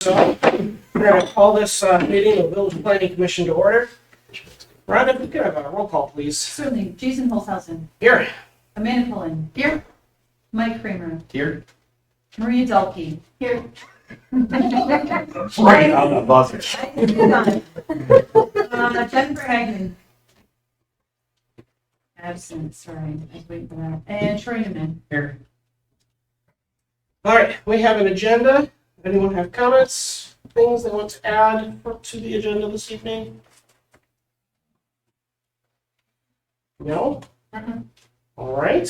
So, we're gonna call this uh, meeting of Village Planning Commission to order. Rhonda, if we could have a roll call, please. Certainly, Jason Holzhausen, Here. Amanda Pullen. Here. Mike Kramer, Here. Maria Dalkey. Here. Right on the buzzer. Uh, Jennifer Hagman. Absent, sorry, I was waiting for that. And Troy Newman. Here. All right, we have an agenda. Anyone have comments, things they want to add to the agenda this evening? No? Mhm. All right.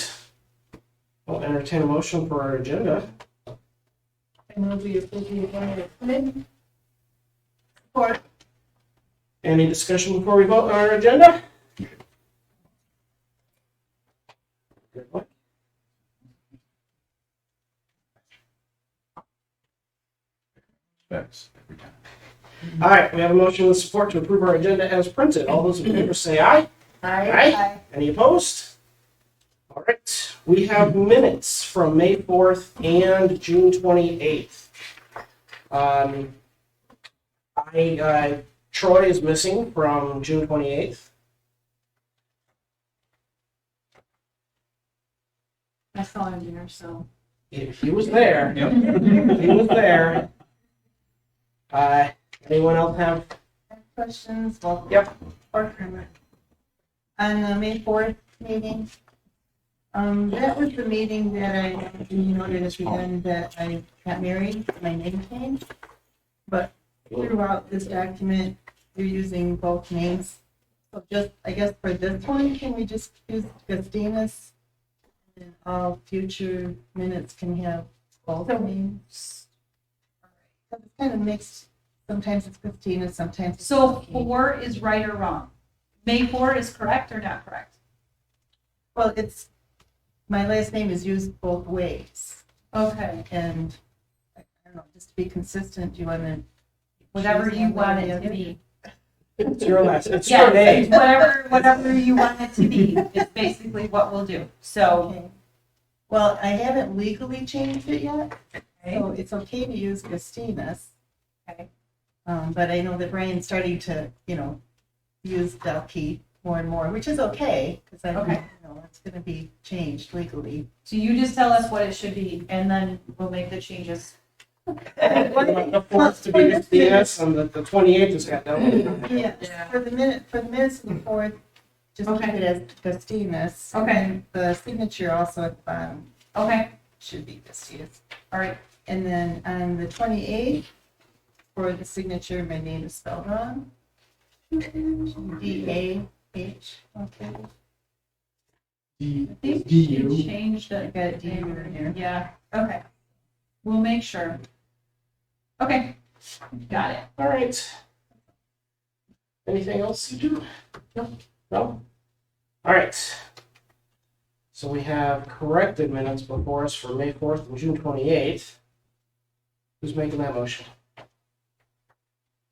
I'll entertain a motion for our agenda. I move we approve the appointment of Flynn. Support. Any discussion before we vote on our agenda? Good luck. Thanks. Every time. All right, we have a motion with support to approve our agenda as printed. All those in favor say aye. Aye. Any opposed? All right, we have minutes from May 4th and June 28th. Um, I, uh, Troy is missing from June 28th. I saw him there, so. If he was there, Yep. if he was there. Uh, anyone else have? Questions? Well, Yep. Or Kramer. On the May fourth meeting, um, that was the meeting that I, you noted as we done that I got married, my name changed. But throughout this document, you're using both names. So just, I guess for this one, can we just use Christina's? And all future minutes can have both names. It's kind of mixed. Sometimes it's Christina, sometimes it's. So Christine. four is right or wrong? May four is correct or not correct? Well, it's, my last name is used both ways, Okay, and, I don't know, just to be consistent, do you want to? whatever you want it to be. It's your last, it's your Yes, name. it's whatever, whatever you want it to be, is basically what we'll do, so. Okay. Well, I haven't legally changed it yet, so it's okay to use Christina's. Okay. Um, but I know that Brian's starting to, you know, use Delkey more and more, which is okay, because I, Okay. you know, it's gonna be changed legally. So you just tell us what it should be, and then we'll make the changes. The fourth to be Christina's and the the 28th is got double. Yeah. Yes, for the minute, for the minutes of the fourth, just keep Okay. it as Christina's. Okay. And The signature also at the bottom Okay, should be Christina's. all right, And then on the twenty-eighth, for the signature, my name is spelled wrong. D A H, okay. D, I think D you U. changed I it. got a D in here. Yeah, okay. We'll make sure. Okay, got it. All right. Anything else to do? No. No? All right. So we have corrected minutes before us for May 4th and June 28th. Who's making that motion?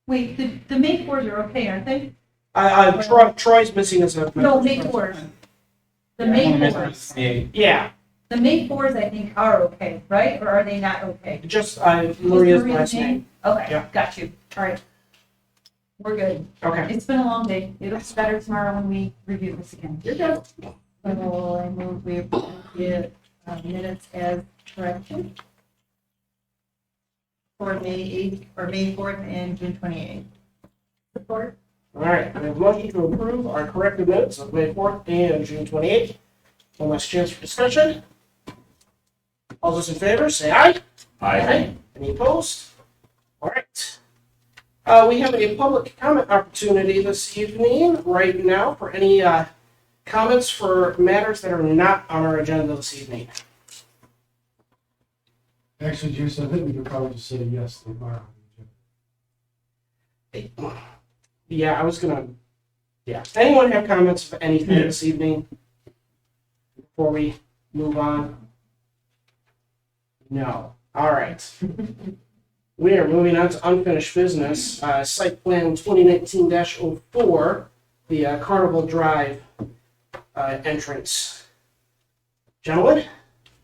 Wait, the, the May fours are okay, aren't they? I, I, Troy, Troy's missing us. a- No, May fours. The May fours, Yeah, the May fours I think are okay, right, or are they not okay? just, I, Is Maria's Maria last name. Jane? Okay, Yeah. got you, all right. We're good. Okay. It's been a long day. It'll be better tomorrow when we review this again. You're good. So I move we approve the uh, minutes as corrected. For May eighth, or May fourth and June twenty-eighth. Support? All right, we have a motion to approve our corrected minutes of May 4th and June 28th. One last chance for discussion. All those in favor, say aye. I, Any opposed? All right. Uh, we have a public comment opportunity this evening, right now, for any, uh, comments for matters that are not on our agenda this evening. Actually, Jason, I think we could probably just say yes to Mara. Yeah, I was gonna, yeah. Anyone have comments for anything Yeah. this evening? Before we move on? No. All right. We are moving on to unfinished business, uh, site plan twenty nineteen oh 4 the uh, Carnival Drive, uh, entrance. Gentlemen,